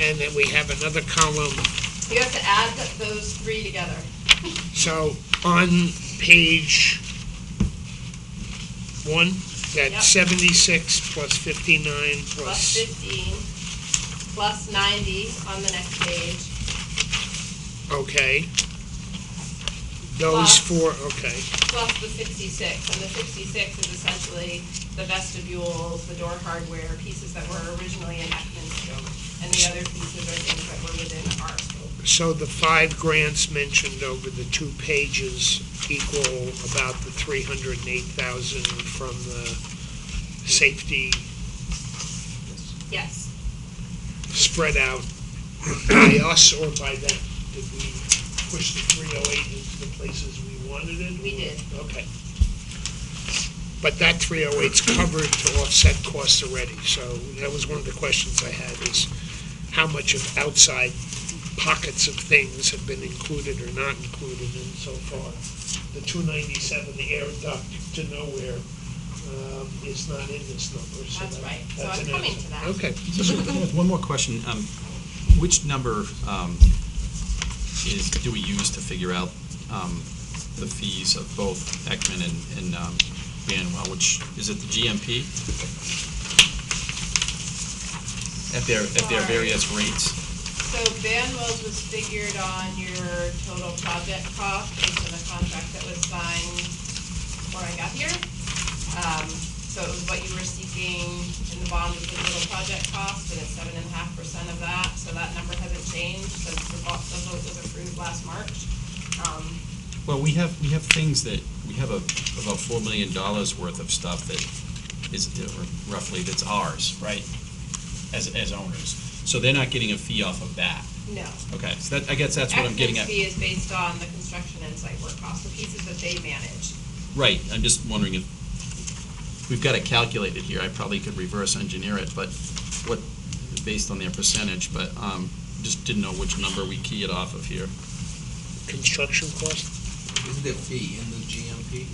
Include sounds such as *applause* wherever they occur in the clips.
and then we have another column. You have to add th- those three together. So on page one, Yep. that's seventy-six plus fifty-nine plus, plus fifteen, plus ninety on the next page, okay. Those Plus- four, okay, plus the sixty-six, and the sixty-six is essentially the vestibules, the door hardware, pieces that were originally in Heckman's scope, and the other pieces are things that were within our scope. so the five grants mentioned over the two pages equal about the three hundred and eight thousand from the safety Yes, spread out by us or by them? Did we push the 308 into the places we wanted it? We did. Okay. But that 308's covered to offset costs already, so that was one of the questions I had, is how much of outside pockets of things have been included or not included, and so far, the 297 air duct to nowhere um, is not in this number, so That's that- right. So that's I'm an coming outside- to that. Okay. One more question. Um, Which number um, is, do we use to figure out um, the fees of both Ekman and- and um, Banwell? Which, is it the GMP? At their, at their Sorry. various rates? so Banwell's was figured on your total project cost based on the contract that was signed before I got here. Um, so it was what you were seeking in the bond was the total project cost, and it's seven and a half percent of that, so that number hasn't changed since the vote, the vote was approved last March. Um, Well, we have, we have things that, we have a- about $4 million worth of stuff that is uh, roughly, that's ours, right? As, as owners. So they're not getting a fee off of that. no. Okay, so that, I guess that's what I'm getting at. Excellence fee is based on the construction and site work costs, the pieces that they manage. Right, I'm just wondering if, we've got it calculated here, I probably could reverse engineer it, but what, based on their percentage, but, um, just didn't know which number we key it off of here. Construction cost? Isn't their fee in the GMP?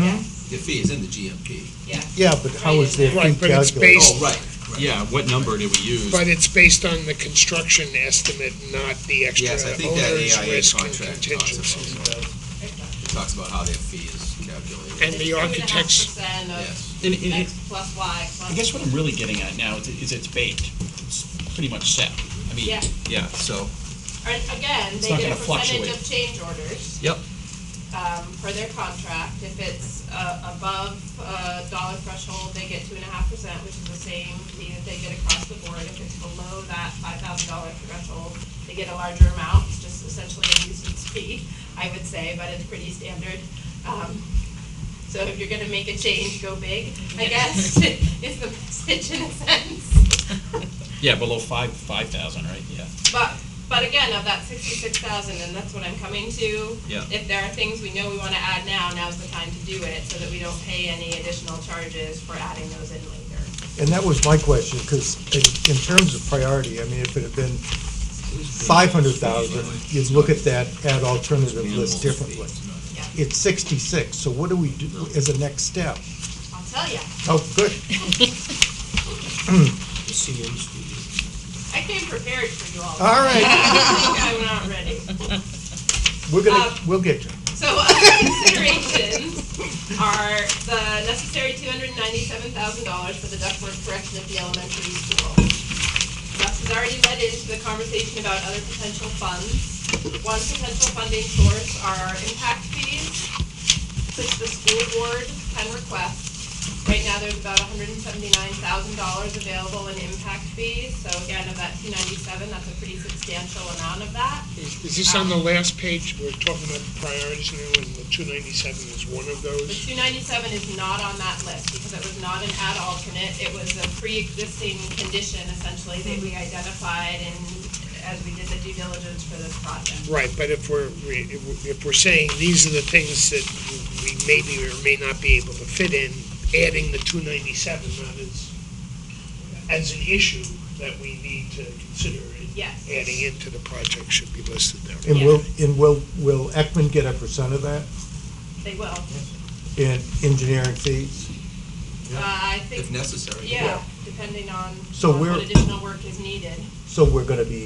Yes, Their fee is in the GMP. yes. Yeah, but how is their Right, fee but it's calculated? based- Oh, right, right. Yeah, what number did we use? But it's based on the construction estimate, not the extra Yes, I think that owner's AIA risk and contract talks contingencies. about, that. Exactly. it talks about how their fee is calculated. And the architects, Yes. And- and- X *laughs* plus Y plus. I guess what I'm really getting at now is, is it's baked, it's pretty much set. I mean, Yeah. yeah, so, And again, It's they not get a gonna percentage fluctuate. of change orders, yep, um, for their contract. If it's, uh, above, uh, dollar threshold, they get two and a half percent, which is the same fee that they get across the board. If it's below that five thousand dollar threshold, they get a larger amount, it's just essentially a nuisance fee, I would say, but it's pretty standard. Um, so if you're gonna make a change, go big, I guess, *laughs* is the message in a sense. yeah, below five, five thousand, right, yeah. But, but again, of that sixty-six thousand, and that's what I'm coming to. Yeah. If there are things we know we wanna add now, now's the time to do it, so that we don't pay any additional charges for adding those in later. And that was my question, because in terms of priority, I mean, if it had been five hundred thousand, you'd look at that ad alternative list differently. Yeah, It's sixty-six, so what do we do as a next step? I'll tell ya. Oh, good, I came prepared for you all. *laughs* all right, I'm not ready. we're Um, gonna, we'll get you. So *laughs* other considerations are the necessary two hundred and ninety-seven thousand dollars for the ductwork correction at the elementary school. Gus has already led into the conversation about other potential funds. One potential funding source are impact fees, which the school board can request. Right now, there's about hundred and seventy-nine thousand dollars available in impact fees, so again, of that two ninety-seven, that's a pretty substantial amount of that. is is this on the last page? We're talking about priorities now, and the 297 is one of The those? two ninety-seven is not on that list because it was not an ad alternate. It was a pre-existing condition essentially that we identified and as we did the due diligence for this project. Right, but if we're, we- if we're- if we're saying these are the things that we maybe or may not be able to fit in, adding the 297 not as, as an issue that we need to consider in Yes. adding into the project should be listed there. And will, and will, will Ekman get a percent of that They will. in engineering fees? Uh, I think, if necessary. yeah, depending on So on we're- what additional work is needed. So we're gonna be